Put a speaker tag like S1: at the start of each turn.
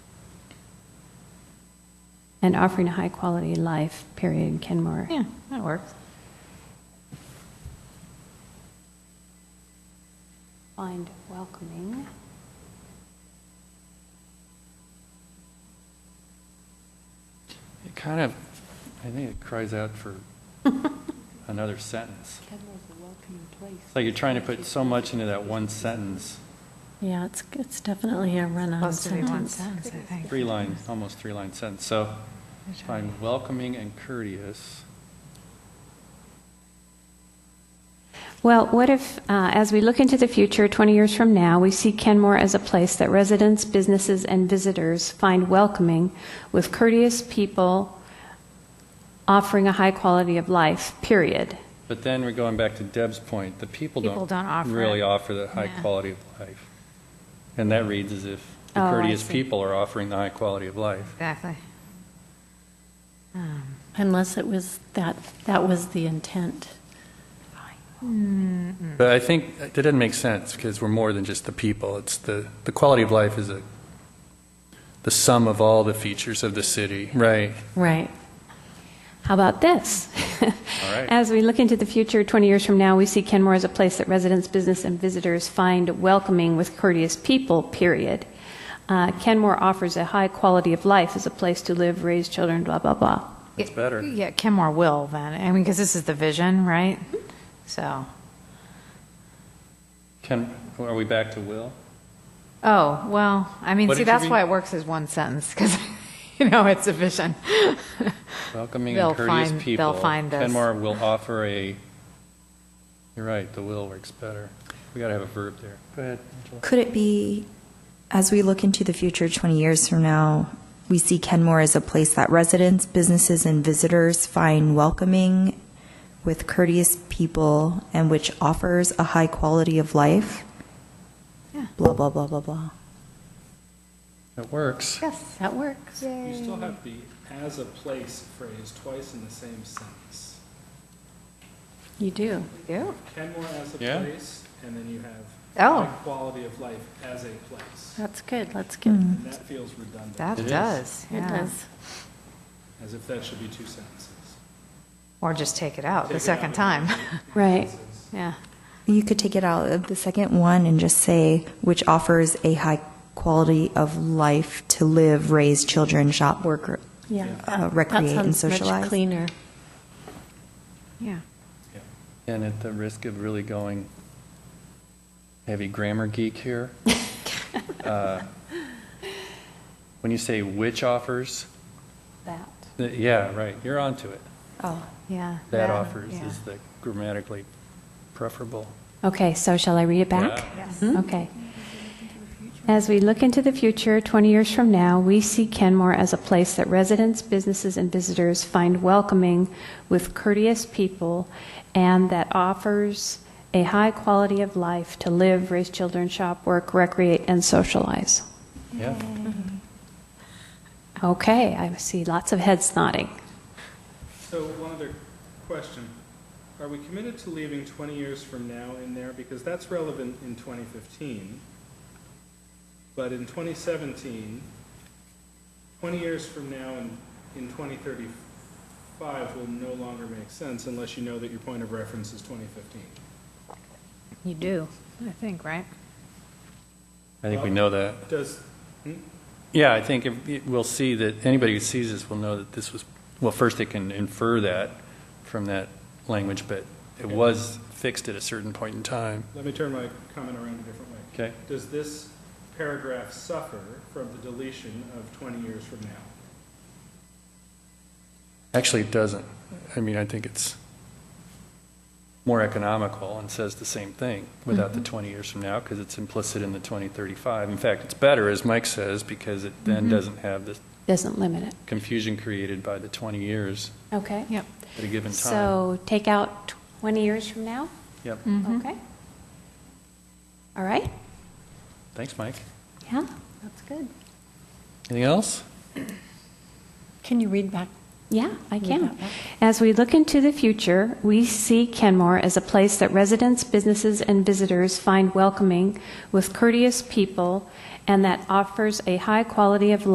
S1: and offering a high quality life, period, in Kenmore.
S2: Yeah, that works.
S1: Find welcoming.
S3: It kind of, I think it cries out for another sentence.
S4: Kenmore's a welcoming place.
S3: It's like you're trying to put so much into that one sentence,
S5: Yeah, it's, it's definitely a run-on
S2: Supposed to be one
S5: sentence.
S2: sentence, I think.
S3: three line, almost three line sentence. So find welcoming and courteous.
S1: Well, what if, uh, as we look into the future, 20 years from now, we see Kenmore as a place that residents, businesses, and visitors find welcoming with courteous people offering a high quality of life, period?
S3: But then we're going back to Deb's point, the people
S2: People don't
S3: don't
S2: offer
S3: really
S2: it.
S3: offer the high
S2: Yeah.
S3: quality of life. And that reads as if the
S1: Oh, I
S3: courteous
S1: see.
S3: people are offering the high quality of life.
S2: Exactly. Um,
S5: Unless it was that, that was the intent.
S2: Hmm.
S3: But I think that doesn't make sense because we're more than just the people. It's the, the quality of life is a, the sum of all the features of the city. Right.
S5: Right.
S1: How about this?
S3: right.
S1: As we look into the future, 20 years from now, we see Kenmore as a place that residents, business, and visitors find welcoming with courteous people, period. Uh, Kenmore offers a high quality of life as a place to live, raise children, blah, blah, blah.
S3: That's better.
S2: Yeah, Kenmore will then, I mean, because this is the vision, right? So,
S3: Can, are we back to Will?
S2: oh, well, I mean,
S3: What
S2: see,
S3: did you
S2: that's
S3: read?
S2: why it works as one sentence, because, you know, it's a vision.
S3: Welcoming
S2: They'll
S3: and courteous
S2: find- they'll
S3: people.
S2: find this.
S3: Kenmore will offer a, you're right, the will works better. We got to have a verb there. Go ahead, Angela.
S6: Could it be, as we look into the future 20 years from now, we see Kenmore as a place that residents, businesses, and visitors find welcoming with courteous people and which offers a high quality of life?
S2: Yeah.
S6: Blah, blah, blah, blah, blah.
S3: It works.
S2: Yes, that works.
S7: You still have the as a place phrase twice in the same sentence.
S5: You do.
S2: Do?
S7: Kenmore as a
S3: Yeah.
S7: place, and then you have
S2: Oh.
S7: high quality of life as a place.
S5: That's good. Let's get,
S6: Hmm.
S5: it
S7: And that feels redundant.
S2: That
S3: It is.
S2: does, yeah.
S5: does.
S7: As if that should be two sentences.
S2: Or just take it out
S7: Take it
S2: Oh, the
S7: out
S2: second
S7: and-
S2: time,
S1: Right.
S2: yeah.
S6: You could take it out of the second one and just say, which offers a high quality of life to live, raise children, shop, work,
S5: Yeah.
S6: Uh,
S5: that-
S6: recreate and
S5: That sounds much
S6: socialize.
S5: cleaner.
S2: Yeah.
S3: And at the risk of really going heavy grammar geek here, uh, when you say which offers,
S1: That.
S3: th- yeah, right, you're onto it.
S6: oh,
S2: Yeah.
S3: That offers
S2: yeah.
S3: is the grammatically preferable.
S1: Okay, so shall I read it back?
S3: Yeah.
S2: Yes.
S1: Okay. As we look into the future, 20 years from now, we see Kenmore as a place that residents, businesses, and visitors find welcoming with courteous people and that offers a high quality of life to live, raise children, shop, work, recreate, and socialize.
S3: Yeah.
S1: Okay, I see lots of heads nodding.
S7: So one other question. Are we committed to leaving 20 years from now in there? Because that's relevant in 2015. But in 2017, 20 years from now in, in 2035 will no longer make sense unless you know that your point of reference is 2015.
S2: You do, I think, right?
S3: I think we know that.
S7: Does,
S3: Yeah, I think if- it- we'll see that, anybody who sees this will know that this was, well, first they can infer that from that language, but it was fixed at a certain point in time.
S7: let me turn my comment around a different way.
S3: Okay.
S7: Does this paragraph suffer from the deletion of 20 years from now?
S3: Actually, it doesn't. I mean, I think it's more economical and says the same thing without
S2: Mm-hmm.
S3: the 20 years from now, because it's implicit in the 2035. In fact, it's better, as Mike says, because it then
S2: Mm-hmm.
S3: doesn't have the
S1: Doesn't limit it.
S3: confusion created by the 20 years
S1: Okay.
S2: Yep.
S3: at a given time.
S1: So take out 20 years from now?
S3: Yep.
S1: Okay. All right?
S3: Thanks, Mike.
S1: Yeah, that's good.
S3: Anything else?
S5: Can you read back?
S1: Yeah, I
S5: Read
S1: can.
S5: that back.
S1: As we look into the future, we see Kenmore as a place that residents, businesses, and visitors find welcoming with courteous people and that offers a high quality of